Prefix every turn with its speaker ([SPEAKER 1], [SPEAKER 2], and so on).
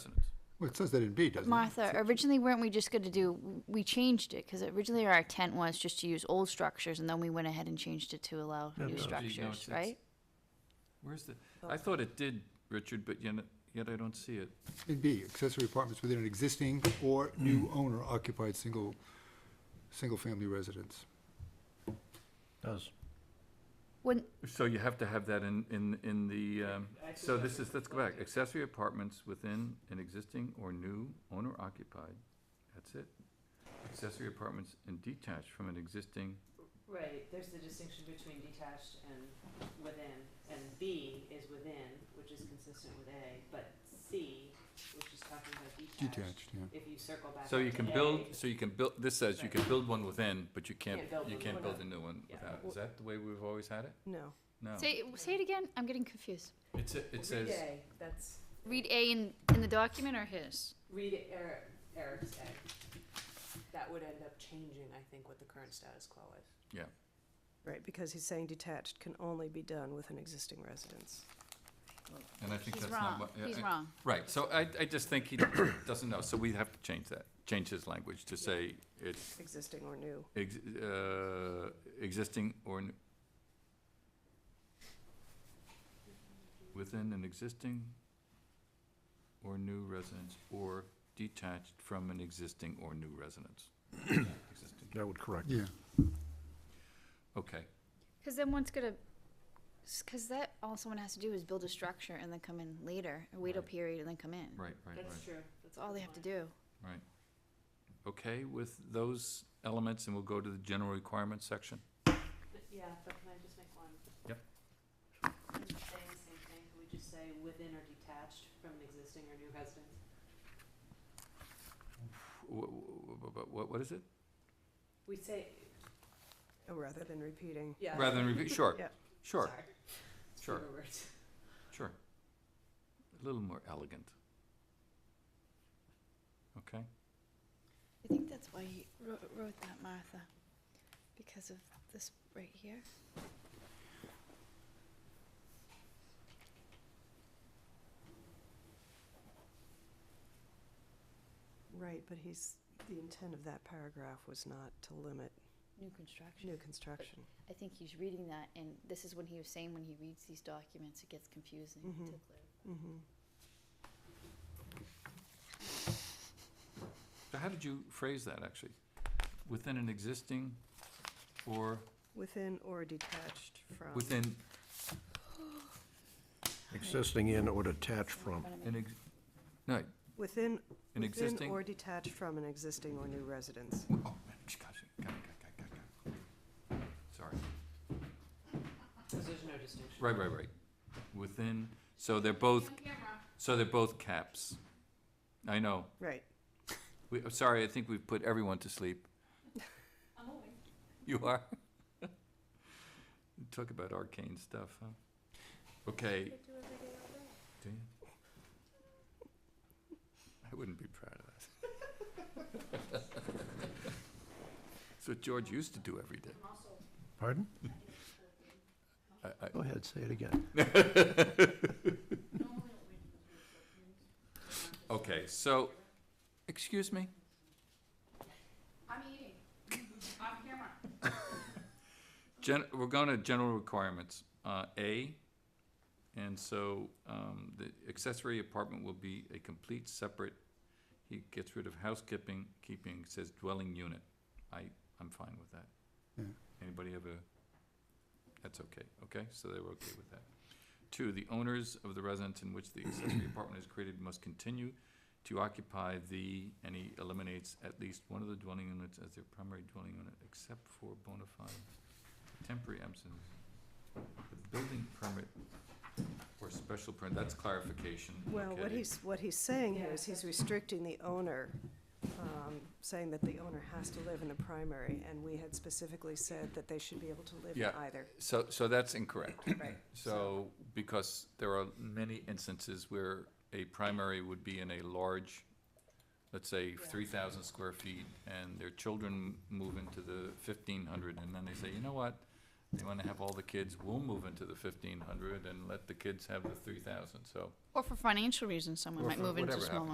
[SPEAKER 1] Well, it says that in B, doesn't it?
[SPEAKER 2] Martha, originally weren't we just gonna do, we changed it, because originally our intent was just to use old structures, and then we went ahead and changed it to allow
[SPEAKER 3] no,
[SPEAKER 2] new
[SPEAKER 3] it's-
[SPEAKER 2] structures,
[SPEAKER 3] it's-
[SPEAKER 2] right?
[SPEAKER 3] Where's the,
[SPEAKER 4] Oh.
[SPEAKER 3] I thought it did, Richard, but yet, yet I don't see it.
[SPEAKER 1] In B, accessory apartments within an existing or new owner occupied single, single-family residence.
[SPEAKER 5] Does.
[SPEAKER 2] When,
[SPEAKER 3] So you have to have that in, in, in the, um, so this is, let's go back, accessory apartments within an existing or new owner occupied, that's it. Accessory apartments and detached from an existing,
[SPEAKER 4] Right, there's the distinction between detached and within, and B is within, which is consistent with A, but C, which is talking about detached,
[SPEAKER 1] Detached, yeah.
[SPEAKER 4] if you circle back
[SPEAKER 3] so
[SPEAKER 4] up
[SPEAKER 3] you can
[SPEAKER 4] to
[SPEAKER 3] build,
[SPEAKER 4] A,
[SPEAKER 3] so you can build, this says you can build one within, but you can't,
[SPEAKER 4] Can't build
[SPEAKER 3] you
[SPEAKER 4] one
[SPEAKER 3] can't build a
[SPEAKER 4] without.
[SPEAKER 3] new one
[SPEAKER 4] Yeah.
[SPEAKER 3] without, is that the way we've always had it?
[SPEAKER 6] No.
[SPEAKER 3] No.
[SPEAKER 2] say, say it again, I'm getting confused.
[SPEAKER 3] It's, a- it says,
[SPEAKER 4] Read A, that's,
[SPEAKER 2] Read A in, in the document or his?
[SPEAKER 4] read Eric, Eric's A. That would end up changing, I think, what the current status quo is.
[SPEAKER 3] yeah,
[SPEAKER 6] Right, because he's saying detached can only be done with an existing residence.
[SPEAKER 3] and I think
[SPEAKER 2] He's
[SPEAKER 3] that's not
[SPEAKER 2] wrong,
[SPEAKER 3] what. yeah,
[SPEAKER 2] he's
[SPEAKER 3] I-
[SPEAKER 2] wrong.
[SPEAKER 3] Right, so I, I just think he doesn't know, so we have to change that, change his language to say it's
[SPEAKER 6] Existing or new.
[SPEAKER 3] ex- uh, existing or n- within an existing or new residence or detached from an existing or new residence. Existing.
[SPEAKER 5] That would correct.
[SPEAKER 1] Yeah.
[SPEAKER 3] Okay,
[SPEAKER 2] Because then one's gonna, because that, all someone has to do is build a structure and then come in later, or wait a
[SPEAKER 3] Right.
[SPEAKER 2] period and then come in.
[SPEAKER 3] right, right, right,
[SPEAKER 4] That's true.
[SPEAKER 2] That's all they have to do.
[SPEAKER 3] right. Okay with those elements, and we'll go to the general requirements section?
[SPEAKER 4] But yeah, but can I just make one?
[SPEAKER 3] Yep.
[SPEAKER 4] Can we say the same thing, can we just say within or detached from an existing or new residence?
[SPEAKER 3] Wh- wh- wh- wh- What, what is it?
[SPEAKER 4] We say,
[SPEAKER 6] Oh, rather than repeating.
[SPEAKER 4] yeah.
[SPEAKER 3] Rather than repeat, sure,
[SPEAKER 6] Yeah.
[SPEAKER 3] sure,
[SPEAKER 4] Sorry. It's
[SPEAKER 3] Sure.
[SPEAKER 4] fewer words.
[SPEAKER 3] Sure. A little more elegant. Okay,
[SPEAKER 2] I think that's why he wrote, wrote that, Martha, because of this right here.
[SPEAKER 6] Right, but he's, the intent of that paragraph was not to limit
[SPEAKER 2] New construction.
[SPEAKER 6] new construction.
[SPEAKER 2] I think he's reading that, and this is when he was saying when he reads these documents, it gets confusing.
[SPEAKER 6] Mhm.
[SPEAKER 2] To
[SPEAKER 6] Mm-hmm.
[SPEAKER 3] so how did you phrase that, actually? Within an existing or
[SPEAKER 6] Within or detached from.
[SPEAKER 3] within
[SPEAKER 5] Existing in or detached from.
[SPEAKER 3] an ex- no, an
[SPEAKER 6] Within, within
[SPEAKER 3] existing?
[SPEAKER 6] or detached from an existing or new residence.
[SPEAKER 3] Oh, man, gosh, got it, got it, got it, got it, got it. Sorry,
[SPEAKER 4] Because there's no distinction.
[SPEAKER 3] right, right, right. Within, so they're both, so they're both caps. I know,
[SPEAKER 6] Right.
[SPEAKER 3] we, I'm sorry, I think we've put everyone to sleep.
[SPEAKER 4] I'm awake.
[SPEAKER 3] You are? Talk about arcane stuff, huh? Okay. Do you? I wouldn't be proud of that. That's what George used to do every day.
[SPEAKER 5] Pardon?
[SPEAKER 3] I- I-
[SPEAKER 5] Go ahead, say it again.
[SPEAKER 3] Okay, so, excuse me?
[SPEAKER 2] I'm eating. On camera.
[SPEAKER 3] Gen, we're going to general requirements, uh, A. And so, um, the accessory apartment will be a complete separate, he gets rid of housekeeping, keeping, says dwelling unit. I, I'm fine with that.
[SPEAKER 1] Yeah.
[SPEAKER 3] Anybody have a, that's okay, okay, so they were okay with that. Two, the owners of the residence in which the accessory apartment is created must continue to occupy the, and he eliminates at least one of the dwelling units as their primary dwelling unit, except for bona fide temporary absence. The building permit or special permit, that's clarification,
[SPEAKER 6] Well, what
[SPEAKER 3] okay.
[SPEAKER 6] he's, what he's saying here
[SPEAKER 4] Yeah.
[SPEAKER 6] is he's restricting the owner, um, saying that the owner has to live in the primary, and we had specifically said that they should be able to live in
[SPEAKER 3] Yeah.
[SPEAKER 6] either.
[SPEAKER 3] So, so that's incorrect.
[SPEAKER 6] Right.
[SPEAKER 3] So, because there are many instances where a primary would be in a large, let's say, three thousand square feet, and their children move into the fifteen hundred, and then they say, you know what? They wanna have all the kids, we'll move into the fifteen hundred and let the kids have the three thousand, so.
[SPEAKER 2] Or for financial reasons, someone
[SPEAKER 3] Or
[SPEAKER 2] might
[SPEAKER 3] for
[SPEAKER 2] move into
[SPEAKER 3] whatever
[SPEAKER 2] smaller.